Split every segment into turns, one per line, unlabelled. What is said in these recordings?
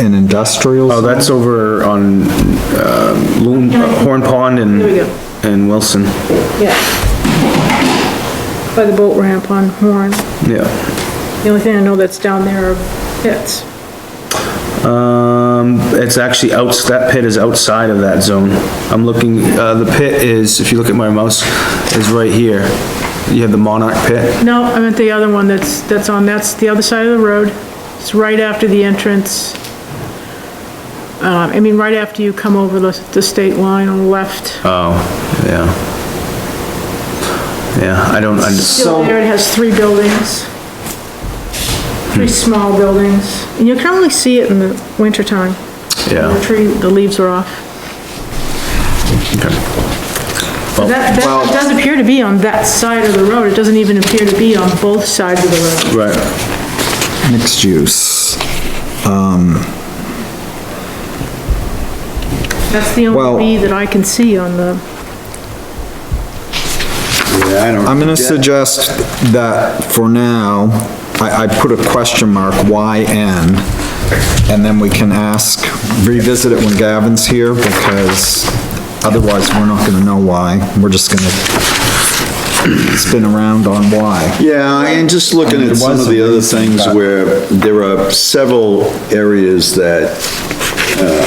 an industrial.
Oh, that's over on, uh, Loon, Horn Pond and,
There we go.
and Wilson,
yeah. By the boat ramp on Horn.
yeah.
The only thing I know that's down there are pits.
Um, it's actually outs, that pit is outside of that zone. I'm looking, uh, the pit is, if you look at my mouse, is right here. You have the Monarch Pit.
No, I meant the other one that's, that's on, that's the other side of the road. It's right after the entrance. Um, I mean, right after you come over the, the state line on the left.
Oh, yeah. Yeah, I don't, I just,
Still there, it has three buildings. Three small buildings. And you can only see it in the wintertime. The
yeah.
tree, the leaves are off.
okay.
That,
well-
that does appear to be on that side of the road. It doesn't even appear to be on both sides of the road.
Right,
Mixed use.
That's the
Well-
only B that I can see on the,
Yeah, I don't.
I'm gonna suggest that for now, I, I put a question mark, YN, and then we can ask, revisit it when Gavin's here, because otherwise we're not gonna know why, we're just gonna spin around on why.
Yeah, and just looking at some of the other things where there are several areas that, uh,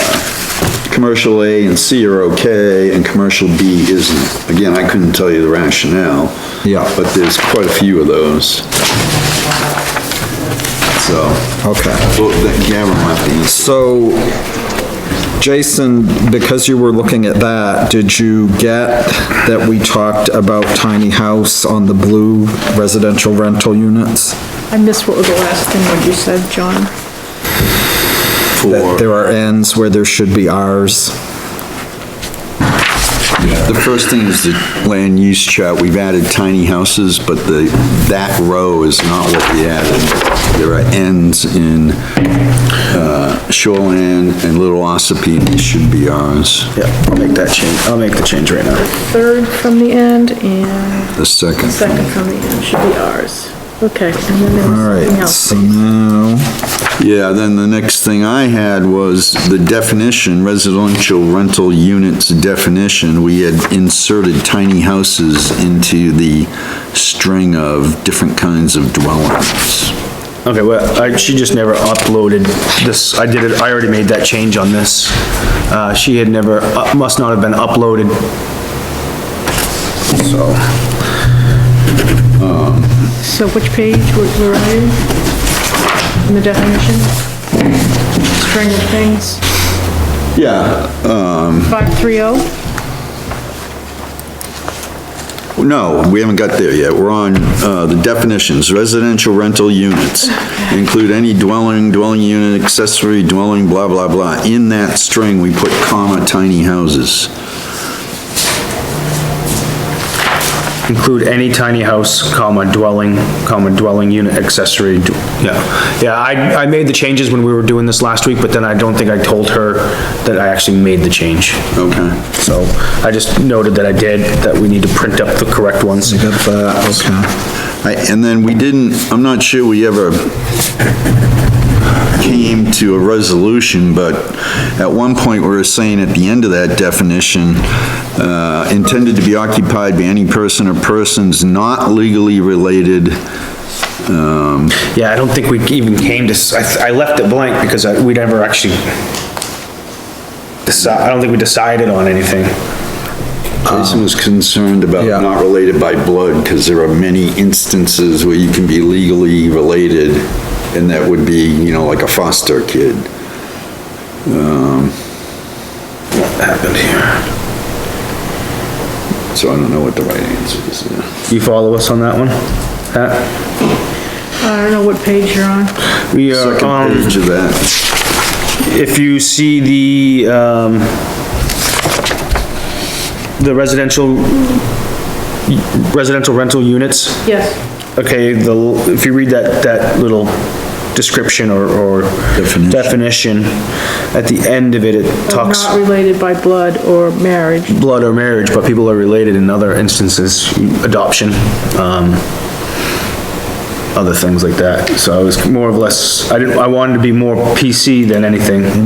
commercial A and C are okay and commercial B isn't. Again, I couldn't tell you the rationale.
Yeah.
But there's quite a few of those. So,
Okay,
well, that Gavin might be,
so, Jason, because you were looking at that, did you get that we talked about tiny house on the blue residential rental units?
I missed what was the last thing that you said, John.
That
for,
there are Ns where there should be Rs.
the first thing is the land use chart. We've added tiny houses, but the, that row is not what we added. There are ends in uh, Shoreland and Little Ossipee, and these should be ours,
yeah, I'll make that change, I'll make the change right now.
Third from the end and
the second.
second from the end should be ours. Okay, and then there was
All right,
something else.
so now,
Yeah, then the next thing I had was the definition, residential rental units definition. We had inserted tiny houses into the string of different kinds of dwellings.
Okay, well, I, she just never uploaded this, I did it, I already made that change on this. Uh, she had never, uh, must not have been uploaded. So,
So which page were were I in? In the definition? String of things, oh?
Yeah.
530?
No, we haven't got there yet. We're on, uh, the definitions. Residential rental units include any dwelling, dwelling unit, accessory dwelling, blah, blah, blah. In that string, we put comma tiny houses.
include any tiny house, comma, dwelling, comma, dwelling unit accessory, d- yeah. Yeah, I, I made the changes when we were doing this last week, but then I don't think I told her that I actually made the change.
Okay.
So, I just noted that I did, that we need to print up the correct ones.
you got that,
I- And then we didn't, I'm not sure we ever came to a resolution, but at one point, we were saying at the end of that definition, uh, intended to be occupied by any person or persons not legally related.
Yeah, I don't think we even came to, s- I, th- I left it blank because I, we never actually deci, I don't think we decided on anything.
Jason was concerned about
Yeah.
not related by blood, because there are many instances where you can be legally related, and that would be, you know, like a foster kid. Um,
What happened here?
So I don't know what the right answer is. yeah.
You follow us on that one? Pat?
I don't know what page you're on.
We are,
Second
um,
page of that.
if you see the, um, the residential, residential rental units,
Yes,
okay, the, if you read that, that little description or, or definition, at the end of it, it talks.
not related by blood or marriage.
blood or marriage, but people are related in other instances, adoption. Um, other things like that. So I was more or less, I didn't, I wanted to be more PC than anything.